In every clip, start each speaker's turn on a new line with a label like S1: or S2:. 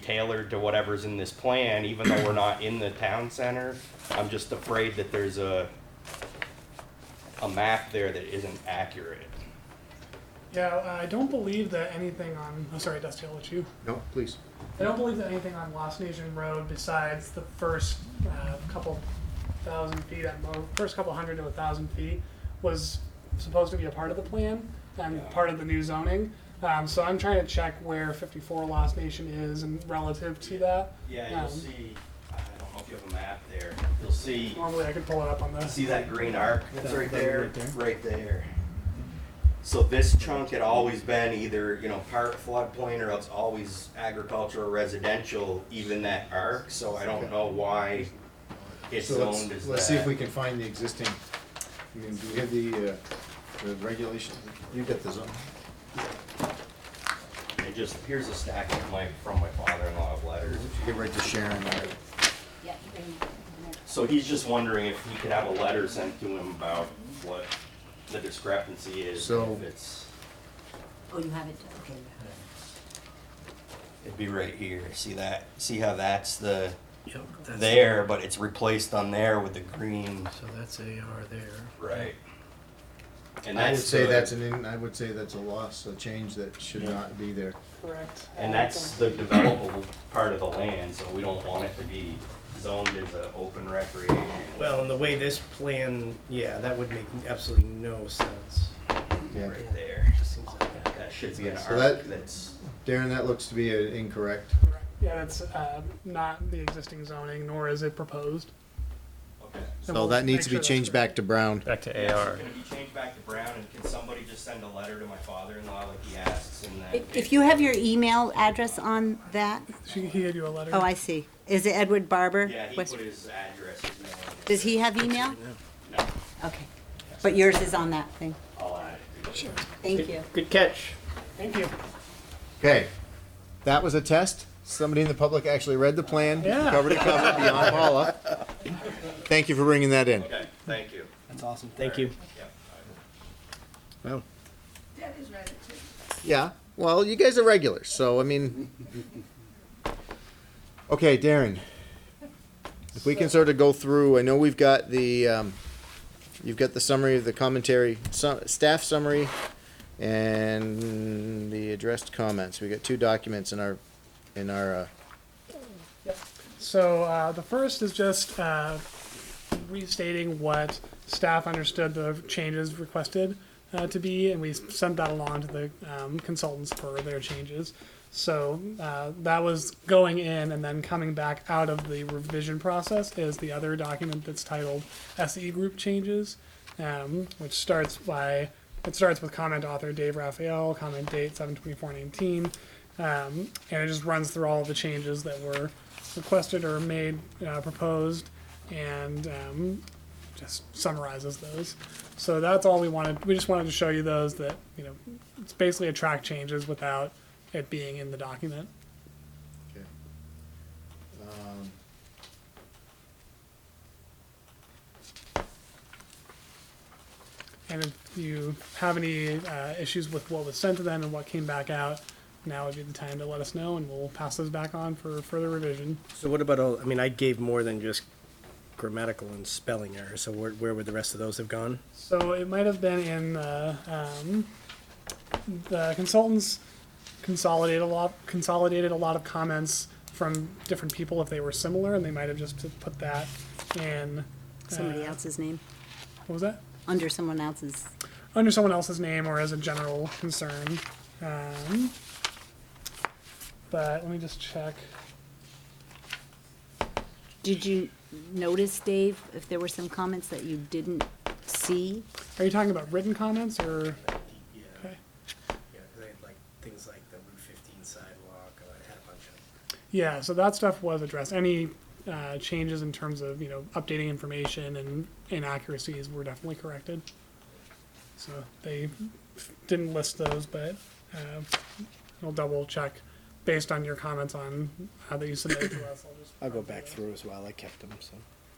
S1: tailored to whatever's in this plan, even though we're not in the town center. I'm just afraid that there's a, a map there that isn't accurate.
S2: Yeah, I don't believe that anything on. I'm sorry, Dusty, I'll let you.
S3: No, please.
S2: I don't believe that anything on Lost Nation Road besides the first uh, couple thousand feet at mo- first couple hundred to a thousand feet was supposed to be a part of the plan and part of the new zoning. Um, so I'm trying to check where 54 Lost Nation is and relative to that.
S1: Yeah,
S2: Um,
S1: you'll see, I don't know if you have a map there, you'll see,
S2: Normally I could pull it up on this.
S1: see that green arc that's
S4: That-
S1: right
S4: that one
S1: there?
S4: right there?
S1: Right there. So this chunk had always been either, you know, part floodplain or it's always agricultural residential, even that arc, so I don't know why it's
S3: So let's-
S1: zoned as that.
S3: Let's see if we can find the existing, I mean, do we have the, uh, the regulation? You got the zone.
S1: It just, here's a stack of my, from my father-in-law of letters.
S3: Get right to Sharon.
S5: Yeah, you can- you can-
S1: So he's just wondering if he could have a letter sent to him about what the discrepancy is,
S3: So-
S1: if it's,
S5: Oh, you have it, okay. you have it.
S1: it'd be right here, see that, see how that's the,
S4: Yep, that's,
S1: there, but it's replaced on there with the green.
S4: so that's AR there.
S1: Right. And
S3: I would
S1: that's
S3: say
S1: the-
S3: that's an, in- I would say that's a loss, a change that should not be there.
S2: Correct. uh,
S1: And that's the developable part of the land, so we don't want it to be zoned as an open recreation.
S4: Well, and the way this plan, yeah, that would make absolutely no sense.
S3: Yeah.
S1: Right there,
S4: Just seems like that.
S1: that should be an
S3: So
S1: arc
S3: that-
S1: that's,
S3: Darren, that looks to be uh, incorrect.
S2: Correct. Yeah, that's uh, not the existing zoning, nor is it proposed.
S1: okay.
S2: And we'll make sure that's correct.
S3: to brown.
S6: Back to
S1: Yes,
S6: AR.
S1: Can it be changed back to brown, and can somebody just send a letter to my father-in-law like he asks and then?
S5: If- If you have your email address on that,
S2: She, he gave you a letter.
S5: oh, I see. Is it Edward Barber?
S1: Yeah, he
S5: West-
S1: put his address. his name.
S5: Does he have email?
S1: No,
S5: Okay, but yours is on that thing.
S1: I'll add it.
S5: Thank you.
S4: Good catch.
S2: Thank you.
S3: Okay, that was a test. Somebody in the public actually read the plan,
S4: Yeah.
S3: cover to cover, beyond Paula. Thank you for bringing that in.
S1: Okay, thank you.
S4: That's awesome. Thank you.
S1: Yeah, I-
S3: Well. Yeah, well, you guys are regulars, so I mean. Okay, Darren. If we can sort of go through, I know we've got the, um, you've got the summary of the commentary, su- staff summary, and the addressed comments. We got two documents in our, in our, uh,
S2: So uh, the first is just uh, restating what staff understood the changes requested uh, to be, and we sent that along to the um, consultants for their changes. So uh, that was going in and then coming back out of the revision process is the other document that's titled SE Group Changes, um, which starts by it starts with comment author Dave Raphael, comment date seven twenty four nineteen, um, and it just runs through all of the changes that were requested or made, uh, proposed, and um, just summarizes those. So that's all we wanted. We just wanted to show you those that you know it's basically a track changes without it being in the document.
S3: uh, Um,
S2: And if you have any uh, issues with what was sent to them and what came back out, now would be the time to let us know, and we'll pass those back on for further revision.
S4: So what about all, I mean, I gave more than just grammatical and spelling errors, so where, where would the rest of those have gone?
S2: So it might have been in the, um, the consultants consolidated a lot consolidated a lot of comments from different people if they were similar, and they might have just put that in. uh,
S5: Somebody else's name,
S2: What was that?
S5: under someone else's.
S2: under someone else's name or as a general concern. Um, but let me just check.
S5: Did you notice, Dave, if there were some comments that you didn't see?
S2: Are you talking about written comments or?
S4: Yeah,
S2: Okay.
S4: yeah, they had like, things like the Route fifteen sidewalk, uh, I had a bunch of.
S2: Yeah, so that stuff was addressed. Any uh, changes in terms of you know updating information and inaccuracies were definitely corrected. So they didn't list those, but uh, I'll double check based on your comments on how that you submitted to us. I'll just.
S4: I'll go back through as well, I kept them, so,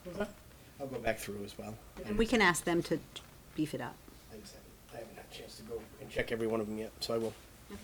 S2: What was that?
S4: I'll go back through as well.
S5: And we can ask them to beef it up.
S4: I just haven't, I haven't had a chance to go and check every one of them yet, so I will.
S5: Okay.